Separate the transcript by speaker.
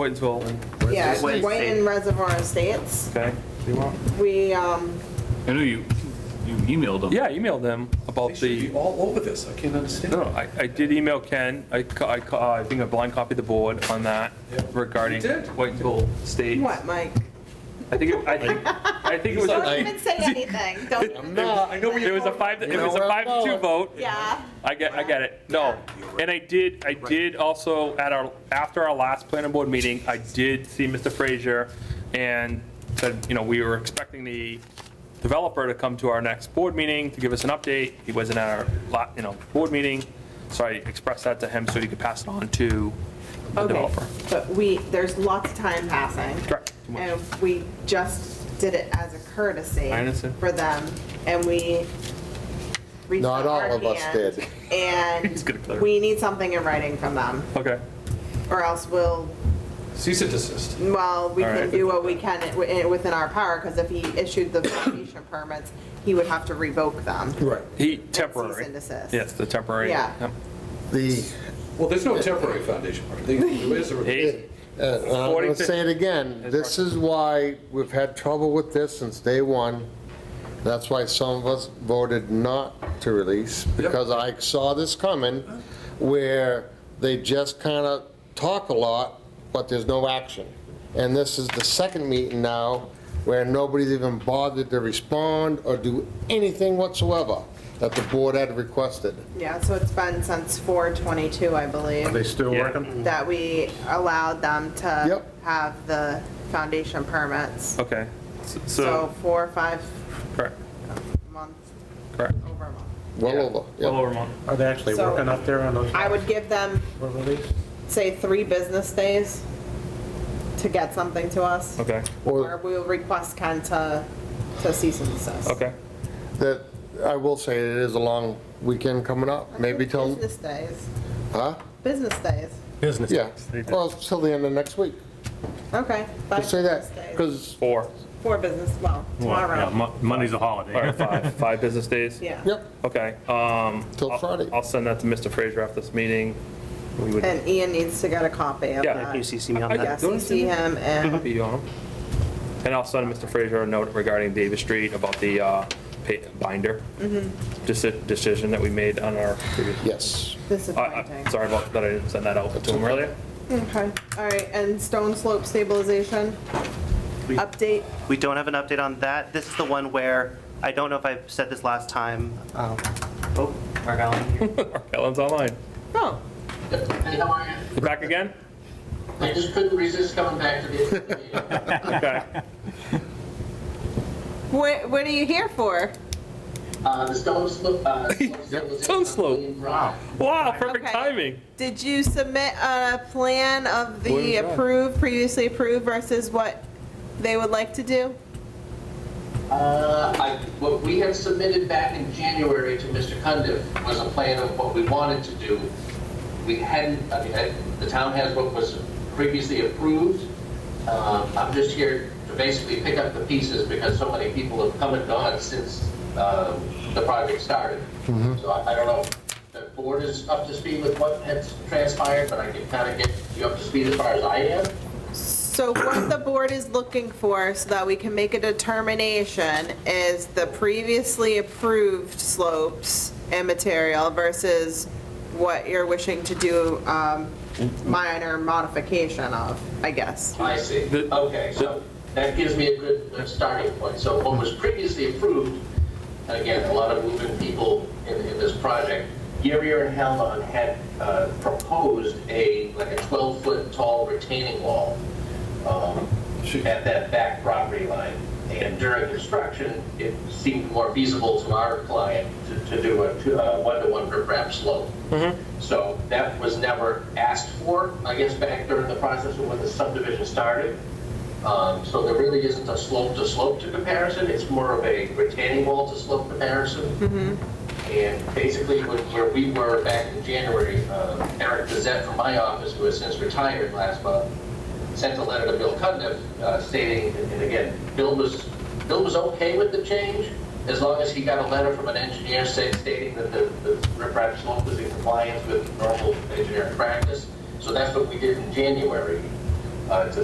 Speaker 1: Whitensville,
Speaker 2: Yeah,
Speaker 3: Wait,
Speaker 2: White
Speaker 3: state.
Speaker 2: and Reservoir Estates.
Speaker 1: okay? Do you want?
Speaker 2: We, um,
Speaker 4: I know you, you emailed them.
Speaker 1: Yeah, I emailed them about
Speaker 5: They should
Speaker 1: the,
Speaker 5: be all over this, I can't understand.
Speaker 1: no, I, I did email Ken, I, ca- I, ca- I think I blind copied the board on that
Speaker 5: Yeah.
Speaker 1: regarding
Speaker 5: You did?
Speaker 1: Whitensville State.
Speaker 2: what, Mike?
Speaker 1: I think, it- I think, I think it was.
Speaker 2: Don't even say anything. Don't,
Speaker 1: I know It was a five, it was a five to two vote.
Speaker 2: yeah.
Speaker 1: I get, I get it, no. And I did, I did also, at our, after our last planning board meeting, I did see Mr. Frazier and said, you know, we were expecting the developer to come to our next board meeting to give us an update. He wasn't at our, la- you know, board meeting, so I expressed that to him so he could pass it on to the
Speaker 2: Okay,
Speaker 1: developer.
Speaker 2: but we, there's lots of time passing.
Speaker 1: Correct.
Speaker 2: And we just did it as a courtesy.
Speaker 1: I understand.
Speaker 2: For them, and we reached
Speaker 3: Not
Speaker 2: out our
Speaker 3: all of us
Speaker 2: hand,
Speaker 3: did.
Speaker 1: He's gonna clear it.
Speaker 2: And we need something in writing from them,
Speaker 1: Okay,
Speaker 2: or else we'll,
Speaker 5: Cease and desist.
Speaker 2: well, we
Speaker 1: All
Speaker 2: can
Speaker 1: right.
Speaker 2: do what we can wi- within our power, because if he issued the foundation permits, he would have to revoke them.
Speaker 5: Right.
Speaker 1: he,
Speaker 2: cease
Speaker 1: temporary.
Speaker 2: and desist.
Speaker 1: Yes, the temporary.
Speaker 2: Yeah.
Speaker 1: yep.
Speaker 3: The,
Speaker 5: Well, there's no temporary foundation part. They- There is a.
Speaker 1: He-
Speaker 3: uh, I'm
Speaker 1: According
Speaker 3: gonna
Speaker 1: to-
Speaker 3: say it again, this is why we've had trouble with this since day one. That's why some of us voted not to release, because I saw this coming, where they just kind of talk a lot, but there's no action. And this is the second meeting now where nobody's even bothered to respond or do anything whatsoever that the board had requested.
Speaker 2: Yeah, so it's been since 422, I believe.
Speaker 3: still
Speaker 1: Yeah. working?
Speaker 2: that we allowed them to
Speaker 3: Yep.
Speaker 2: have the foundation permits.
Speaker 1: Okay, S-
Speaker 2: So
Speaker 1: so,
Speaker 2: four, or five
Speaker 1: correct,
Speaker 2: months,
Speaker 1: correct.
Speaker 2: over a month.
Speaker 3: Well over. yeah.
Speaker 1: Well over a month.
Speaker 6: Are they actually
Speaker 2: So-
Speaker 6: working up there on those
Speaker 2: I would give them,
Speaker 6: for release?
Speaker 2: say, three business days to get something to us.
Speaker 1: Okay,
Speaker 3: Or-
Speaker 2: Or we'll request Ken to, to cease and desist.
Speaker 1: okay.
Speaker 3: that, I will say, it is a long weekend coming up, maybe till,
Speaker 2: Business days,
Speaker 3: huh?
Speaker 2: business days,
Speaker 6: Business.
Speaker 3: Yeah, well, it's till the end of next week.
Speaker 2: okay.
Speaker 3: Just say that,
Speaker 2: Five business days,
Speaker 3: because,
Speaker 1: Four.
Speaker 2: four business, well, tomorrow,
Speaker 6: Monday's a
Speaker 1: All right,
Speaker 6: holiday.
Speaker 1: five, five business days?
Speaker 2: yeah.
Speaker 3: yep,
Speaker 1: Okay, um,
Speaker 3: till Friday.
Speaker 1: I'll send that to Mr. Fraser after this meeting. We would
Speaker 2: And Ian needs to get a copy of
Speaker 1: Yeah.
Speaker 2: that.
Speaker 6: Can you CC me on
Speaker 1: I-
Speaker 2: Oh, Yeah,
Speaker 6: that?
Speaker 2: CC him and
Speaker 1: be on them. And I'll send Mr. Fraser a note regarding Davis Street about the, uh, pa- binder.
Speaker 2: Mm-hmm.
Speaker 1: Deci- Decision that we made on our previous.
Speaker 3: Yes.
Speaker 1: I- I-
Speaker 2: Disappointing.
Speaker 1: Sorry about that, I didn't send that out to him earlier.
Speaker 2: Okay, all right, and stone slope stabilization? Update?
Speaker 3: We don't
Speaker 7: have an update on that. This is the one where, I don't know if I said this last time. um, Oh, Mark Allen here.
Speaker 1: Ellen's online.
Speaker 2: Oh,
Speaker 1: You back again?
Speaker 8: I just couldn't resist coming back to the meeting.
Speaker 1: Okay,
Speaker 2: what, what are you here for?
Speaker 8: Uh, the stone slope, uh.
Speaker 1: Stone slope.
Speaker 8: Wow.
Speaker 1: wow, perfect
Speaker 2: Okay.
Speaker 1: timing.
Speaker 2: Did you submit a plan of the approved, previously approved versus what they would like to do?
Speaker 8: Uh, I, what we had submitted back in January to Mr. Cundiff was a plan of what we wanted to do. We hadn't, I mean, I- the town has what was previously approved. Uh, I'm just here to basically pick up the pieces because so many people have come and gone since, uh, the project started. So I, I don't know, if the board is up to speed with what has transpired, but I can kind of get you up to speed as far as I am.
Speaker 2: So what the board is looking for so that we can make a determination is the previously approved slopes and material versus what you're wishing to do, um, minor modification of, I guess.
Speaker 8: I see.
Speaker 1: The-
Speaker 8: Okay, so that gives me a good uh, starting point. So what was previously approved, and again, a lot of moving people in, in this project, Yerier and Halon had uh, proposed a, like a 12-foot tall retaining wall um, at that back property line. And during construction, it seemed more feasible to our client to, to do a two- a one-to-one per grab slope. So that was never asked for, I guess, back during the process of when the subdivision started. Um, So there really isn't a slope-to-slope to comparison, it's more of a retaining wall to slope comparison. And basically, when- where we were back in January, uh, Eric Gazette from my office, who has since retired last month, sent a letter to Bill Cudniff uh, stating, and again, Bill was, Bill was okay with the change as long as he got a letter from an engineer say- stating that the, the riprap slope was in compliance with normal engineering practice. So that's what we did in January. Um, uh, to